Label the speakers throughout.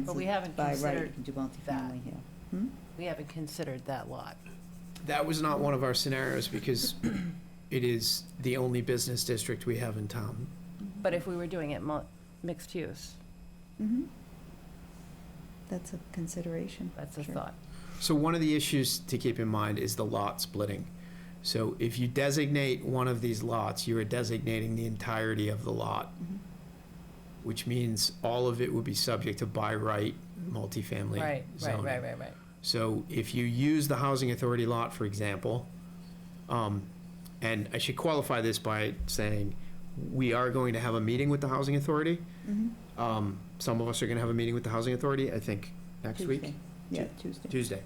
Speaker 1: But we haven't
Speaker 2: By right, you
Speaker 1: considered
Speaker 2: can do multifamily here. Hmm?
Speaker 1: We haven't considered that lot.
Speaker 3: That was not one of our scenarios because it is the only business district we have in town.
Speaker 1: But if we were doing it mul- mixed use, Mm-hmm.
Speaker 2: Mhm. That's a consideration.
Speaker 1: that's a
Speaker 2: Sure.
Speaker 1: thought.
Speaker 3: So one of the issues to keep in mind is the lot splitting. So if you designate one of these lots, you are designating the entirety of the lot,
Speaker 1: Mm-hmm.
Speaker 2: Mhm.
Speaker 3: which means all of it would be subject to by right multifamily
Speaker 1: Right, right,
Speaker 3: zoning.
Speaker 1: right, right, right.
Speaker 3: So if you use the housing authority lot, for example, um, and I should qualify this by saying, we are going to have a meeting with the housing authority.
Speaker 2: Mhm.
Speaker 3: Um, some of us are gonna have a meeting with the housing authority, I think, next week,
Speaker 2: Tuesday. Yeah, Tuesday.
Speaker 3: Tuesday,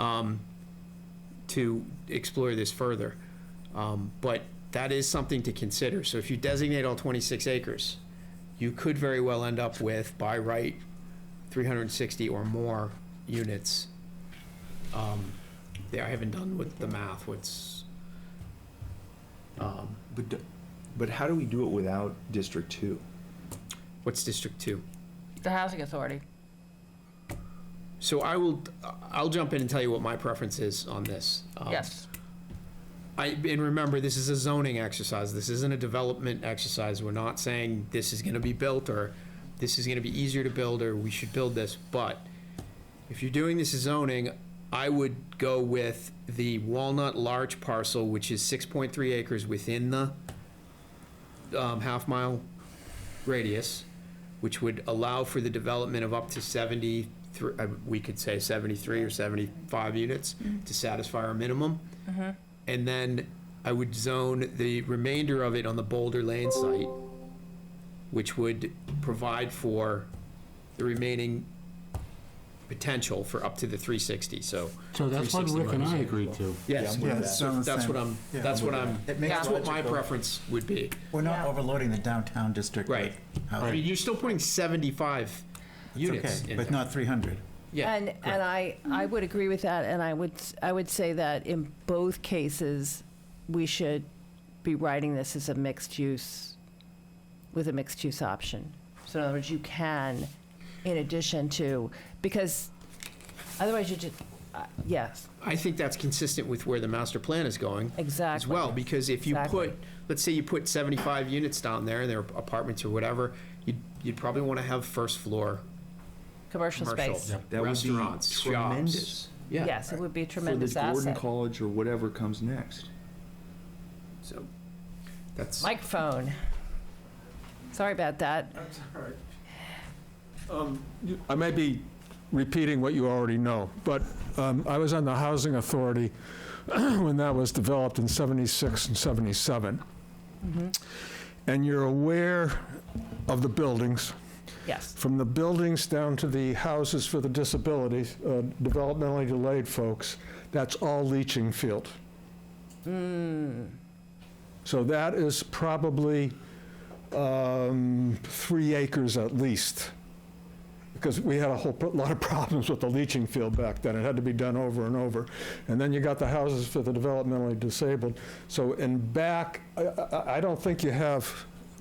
Speaker 3: um, to explore this further. Um, but that is something to consider. So if you designate all twenty-six acres, you could very well end up with, by right, three hundred and sixty or more units. Um, there, I haven't done with the math, what's, um,
Speaker 4: But, d- but how do we do it without District Two?
Speaker 3: what's District Two?
Speaker 1: The housing authority.
Speaker 3: So I will, I'll jump in and tell you what my preference is on this. Um,
Speaker 1: Yes,
Speaker 3: I, and remember, this is a zoning exercise. This isn't a development exercise. We're not saying this is gonna be built or this is gonna be easier to build or we should build this. But if you're doing this as zoning, I would go with the Walnut large parcel, which is six point three acres within the um, half mile radius, which would allow for the development of up to seventy-three, uh, we could say seventy-three or seventy-five units to satisfy our minimum. And then I would zone the remainder of it on the Boulder Lane site, which would provide for the remaining potential for up to the three sixty, so.
Speaker 5: So that's what
Speaker 3: 360
Speaker 5: Rick and I
Speaker 3: minus-
Speaker 5: agreed to.
Speaker 3: Yes,
Speaker 6: Yeah, that
Speaker 3: so
Speaker 6: sounds
Speaker 3: that's
Speaker 6: the
Speaker 3: what I'm,
Speaker 6: same. Yeah.
Speaker 3: that's what I'm,
Speaker 6: It makes
Speaker 3: that's what my
Speaker 6: logical-
Speaker 3: preference would be.
Speaker 6: We're not
Speaker 1: Yeah.
Speaker 6: overloading the downtown district. with
Speaker 3: Right. I
Speaker 6: housing.
Speaker 3: mean, you're still putting seventy-five
Speaker 6: It's
Speaker 3: units
Speaker 6: okay,
Speaker 3: in
Speaker 6: But
Speaker 3: there.
Speaker 6: not 300.
Speaker 3: Yeah,
Speaker 1: and, and I, I would agree with that, and I would, s- I would say that in both cases, we should be writing this as a mixed use, with a mixed use option. So in other words, you can, in addition to, because otherwise you just, uh, yes,
Speaker 3: I think that's consistent with where the master plan is going
Speaker 1: exactly.
Speaker 3: as well, because if you
Speaker 1: Exactly.
Speaker 3: put, let's say you put seventy-five units down there, and they're apartments or whatever, you'd, you'd probably wanna have first floor
Speaker 1: Commercial
Speaker 3: commercial,
Speaker 1: space.
Speaker 4: That would be
Speaker 3: restaurants, shops.
Speaker 4: tremendous
Speaker 3: Yeah.
Speaker 1: Yes, it would be a tremendous asset.
Speaker 4: For the Gordon College or whatever comes next.
Speaker 3: So, that's.
Speaker 1: Microphone. Sorry about that.
Speaker 7: I may be repeating what you already know, but um, I was on the Housing Authority when that was developed in 76 and 77. And you're aware of the buildings,
Speaker 1: Yes.
Speaker 7: from the buildings down to the houses for the disabilities, uh, developmentally delayed folks, that's all leaching field.
Speaker 1: Hmm,
Speaker 7: So that is probably um, three acres at least, because we had a whole pro- lot of problems with the leaching field back then. It had to be done over and over. And then you got the houses for the developmentally disabled. So in back, I- I I don't think you have,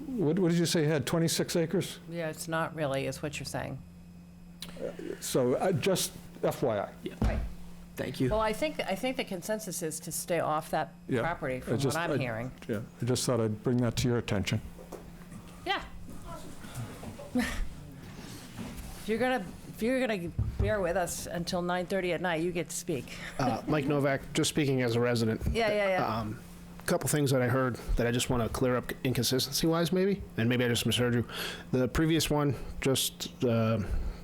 Speaker 7: what what did you say, you had 26 acres?
Speaker 1: Yeah, it's not really, is what you're saying.
Speaker 7: So uh, just FYI.
Speaker 3: Thank you.
Speaker 1: Well, I think, I think the consensus is to stay off that
Speaker 7: Yeah,
Speaker 1: property, from what
Speaker 7: just-
Speaker 1: I'm
Speaker 7: I-
Speaker 1: hearing.
Speaker 7: Yeah. I just thought I'd bring that to your attention.
Speaker 1: Yeah. If you're gonna, if you're gonna bear with us until 9:30 at night, you get to speak.
Speaker 8: Uh, Mike Novak, just speaking as a resident.
Speaker 1: Yeah, yeah, yeah.
Speaker 8: Um, couple things that I heard that I just want to clear up inconsistency wise, maybe, and maybe I just misheard you. The previous one, just uh,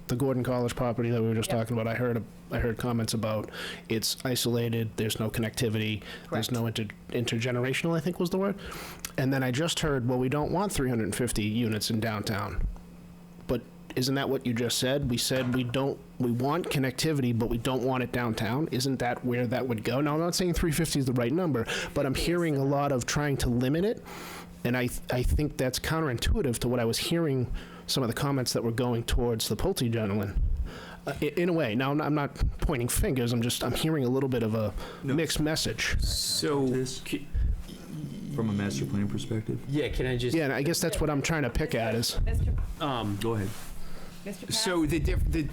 Speaker 8: the Gordon College property that we were just
Speaker 1: Yeah.
Speaker 8: talking about. I heard I heard comments about it's isolated. There's no connectivity.
Speaker 1: Correct.
Speaker 8: There's no inter, intergenerational. I think was the word. And then I just heard, well, we don't want 350 units in downtown. But isn't that what you just said? We said we don't, we want connectivity, but we don't want it downtown. Isn't that where that would go? Now, I'm not saying 350 is the right number, but I'm hearing a lot of trying to limit it. And I, th- I think that's counterintuitive to what I was hearing some of the comments that were going towards the Pulte gentleman. Uh, i- in a way, now I'm I'm not pointing fingers. I'm just I'm hearing a little bit of a mixed message.
Speaker 3: So,
Speaker 4: This, from a master plan perspective?
Speaker 3: yeah, can I just,
Speaker 8: Yeah, and I guess that's what I'm trying to pick at is
Speaker 1: Mr.
Speaker 3: um,
Speaker 4: Go ahead.
Speaker 2: Mr. Pat?
Speaker 3: So the diff, the,